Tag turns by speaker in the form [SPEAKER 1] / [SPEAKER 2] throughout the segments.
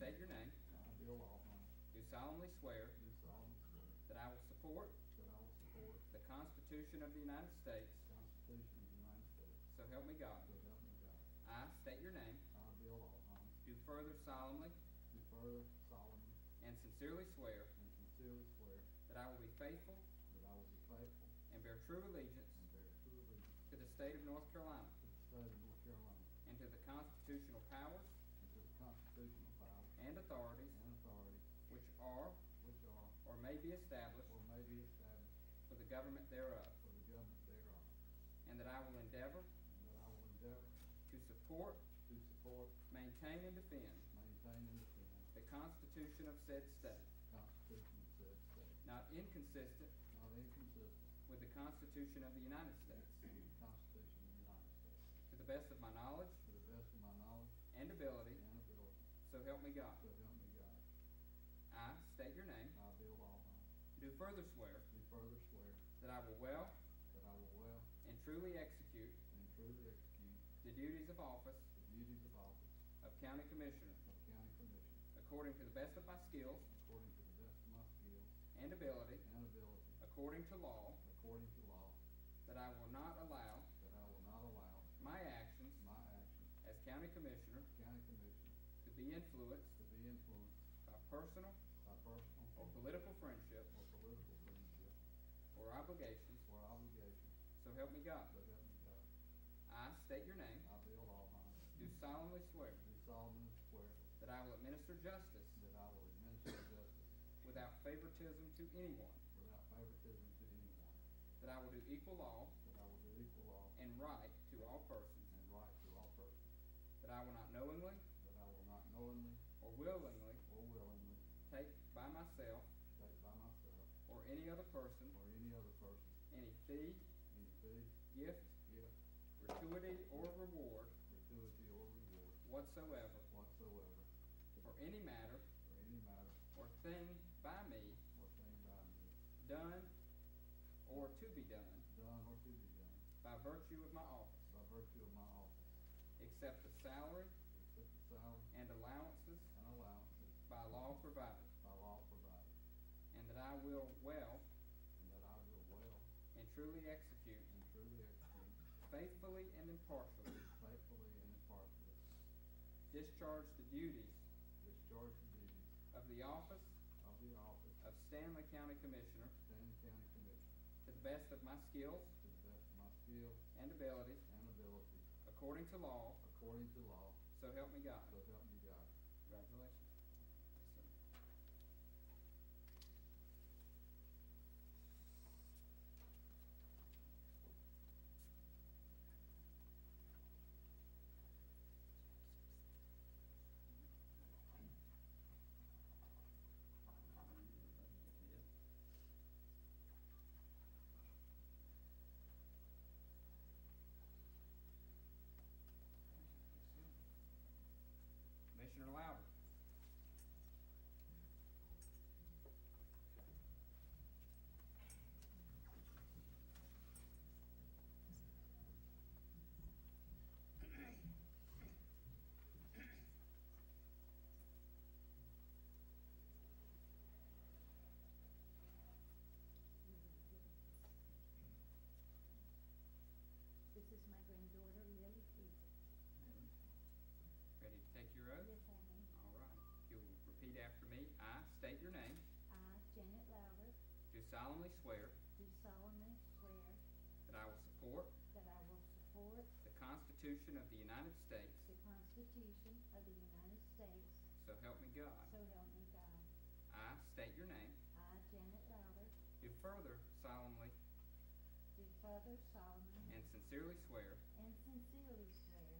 [SPEAKER 1] state your name,
[SPEAKER 2] I, Bill Altman,
[SPEAKER 1] do solemnly swear
[SPEAKER 2] do solemnly swear
[SPEAKER 1] that I will support
[SPEAKER 2] that I will support
[SPEAKER 1] the Constitution of the United States,
[SPEAKER 2] the Constitution of the United States,
[SPEAKER 1] so help me God.
[SPEAKER 2] so help me God.
[SPEAKER 1] I state your name,
[SPEAKER 2] I, Bill Altman,
[SPEAKER 1] do further solemnly
[SPEAKER 2] do further solemnly
[SPEAKER 1] and sincerely swear
[SPEAKER 2] and sincerely swear
[SPEAKER 1] that I will be faithful
[SPEAKER 2] that I will be faithful
[SPEAKER 1] and bear true allegiance
[SPEAKER 2] and bear true allegiance
[SPEAKER 1] to the state of North Carolina
[SPEAKER 2] to the state of North Carolina
[SPEAKER 1] and to the constitutional powers
[SPEAKER 2] and to the constitutional powers
[SPEAKER 1] and authorities
[SPEAKER 2] and authorities
[SPEAKER 1] which are
[SPEAKER 2] which are
[SPEAKER 1] or may be established
[SPEAKER 2] or may be established
[SPEAKER 1] for the government thereof,
[SPEAKER 2] for the government thereof,
[SPEAKER 1] and that I will endeavor
[SPEAKER 2] and that I will endeavor
[SPEAKER 1] to support,
[SPEAKER 2] to support,
[SPEAKER 1] maintain, and defend
[SPEAKER 2] maintain, and defend
[SPEAKER 1] the Constitution of said state,
[SPEAKER 2] the Constitution of said state,
[SPEAKER 1] not inconsistent
[SPEAKER 2] not inconsistent
[SPEAKER 1] with the Constitution of the United States,
[SPEAKER 2] with the Constitution of the United States,
[SPEAKER 1] to the best of my knowledge
[SPEAKER 2] to the best of my knowledge
[SPEAKER 1] and ability,
[SPEAKER 2] and ability,
[SPEAKER 1] so help me God.
[SPEAKER 2] so help me God.
[SPEAKER 1] I state your name,
[SPEAKER 2] I, Bill Alvin,
[SPEAKER 1] do further swear
[SPEAKER 2] do further swear
[SPEAKER 1] that I will well
[SPEAKER 2] that I will well
[SPEAKER 1] and truly execute
[SPEAKER 2] and truly execute
[SPEAKER 1] the duties of office
[SPEAKER 2] the duties of office
[SPEAKER 1] of County Commissioner
[SPEAKER 2] of County Commissioner
[SPEAKER 1] according to the best of my skills
[SPEAKER 2] according to the best of my skill
[SPEAKER 1] and ability,
[SPEAKER 2] and ability,
[SPEAKER 1] according to law,
[SPEAKER 2] according to law,
[SPEAKER 1] that I will not allow
[SPEAKER 2] that I will not allow
[SPEAKER 1] my actions
[SPEAKER 2] my actions
[SPEAKER 1] as County Commissioner
[SPEAKER 2] as County Commissioner
[SPEAKER 1] to be influenced
[SPEAKER 2] to be influenced
[SPEAKER 1] by personal
[SPEAKER 2] by personal
[SPEAKER 1] or
[SPEAKER 2] or
[SPEAKER 1] political friendship
[SPEAKER 2] political friendship
[SPEAKER 1] or obligations,
[SPEAKER 2] or obligation,
[SPEAKER 1] so help me God.
[SPEAKER 2] so help me God.
[SPEAKER 1] I state your name,
[SPEAKER 2] I, Bill Alvin,
[SPEAKER 1] do solemnly swear
[SPEAKER 2] do solemnly swear
[SPEAKER 1] that I will administer justice
[SPEAKER 2] that I will administer justice
[SPEAKER 1] without favoritism to anyone,
[SPEAKER 2] without favoritism to anyone,
[SPEAKER 1] that I will do equal law
[SPEAKER 2] that I will do equal law
[SPEAKER 1] and right to all persons,
[SPEAKER 2] and right to all persons,
[SPEAKER 1] that I will not knowingly
[SPEAKER 2] that I will not knowingly
[SPEAKER 1] or willingly
[SPEAKER 2] or willingly
[SPEAKER 1] take by myself
[SPEAKER 2] take by myself
[SPEAKER 1] or any other person
[SPEAKER 2] or any other person
[SPEAKER 1] any fee,
[SPEAKER 2] any fee,
[SPEAKER 1] gift,
[SPEAKER 2] gift,
[SPEAKER 1] gratuity, or reward
[SPEAKER 2] gratuity, or reward
[SPEAKER 1] whatsoever
[SPEAKER 2] whatsoever
[SPEAKER 1] for any matter
[SPEAKER 2] for any matter
[SPEAKER 1] or thing by me
[SPEAKER 2] or thing by me
[SPEAKER 1] done or to be done
[SPEAKER 2] done or to be done
[SPEAKER 1] by virtue of my office,
[SPEAKER 2] by virtue of my office,
[SPEAKER 1] except the salary
[SPEAKER 2] except the salary
[SPEAKER 1] and allowances
[SPEAKER 2] and allowances
[SPEAKER 1] by law provided,
[SPEAKER 2] by law provided,
[SPEAKER 1] and that I will well
[SPEAKER 2] and that I will well
[SPEAKER 1] and truly execute
[SPEAKER 2] and truly execute
[SPEAKER 1] faithfully and impartially
[SPEAKER 2] faithfully and impartially
[SPEAKER 1] discharge the duties
[SPEAKER 2] discharge the duties
[SPEAKER 1] of the office
[SPEAKER 2] of the office
[SPEAKER 1] of Stanley County Commissioner
[SPEAKER 2] of Stanley County Commissioner
[SPEAKER 1] to the best of my skills
[SPEAKER 2] to the best of my skill
[SPEAKER 1] and abilities,
[SPEAKER 2] and ability,
[SPEAKER 1] according to law,
[SPEAKER 2] according to law,
[SPEAKER 1] so help me God.
[SPEAKER 2] so help me God.
[SPEAKER 1] Congratulations. Commissioner Louder.
[SPEAKER 3] This is my granddaughter, Lily Peter.
[SPEAKER 1] Ready to take your oath?
[SPEAKER 3] Yes, I am.
[SPEAKER 1] All right. If you'll repeat after me, I state your name,
[SPEAKER 3] I, Janet Louder,
[SPEAKER 1] do solemnly swear
[SPEAKER 3] do solemnly swear
[SPEAKER 1] that I will support
[SPEAKER 3] that I will support
[SPEAKER 1] the Constitution of the United States,
[SPEAKER 3] the Constitution of the United States,
[SPEAKER 1] so help me God.
[SPEAKER 3] so help me God.
[SPEAKER 1] I state your name,
[SPEAKER 3] I, Janet Louder,
[SPEAKER 1] do further solemnly
[SPEAKER 3] do further solemnly
[SPEAKER 1] and sincerely swear
[SPEAKER 3] and sincerely swear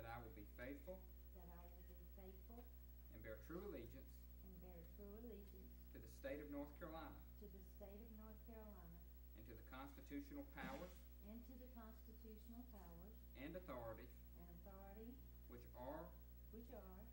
[SPEAKER 1] that I will be faithful
[SPEAKER 3] that I will be faithful
[SPEAKER 1] and bear true allegiance
[SPEAKER 3] and bear true allegiance
[SPEAKER 1] to the state of North Carolina
[SPEAKER 3] to the state of North Carolina
[SPEAKER 1] and to the constitutional powers
[SPEAKER 3] and to the constitutional powers
[SPEAKER 1] and authorities
[SPEAKER 3] and authority
[SPEAKER 1] which are
[SPEAKER 3] which are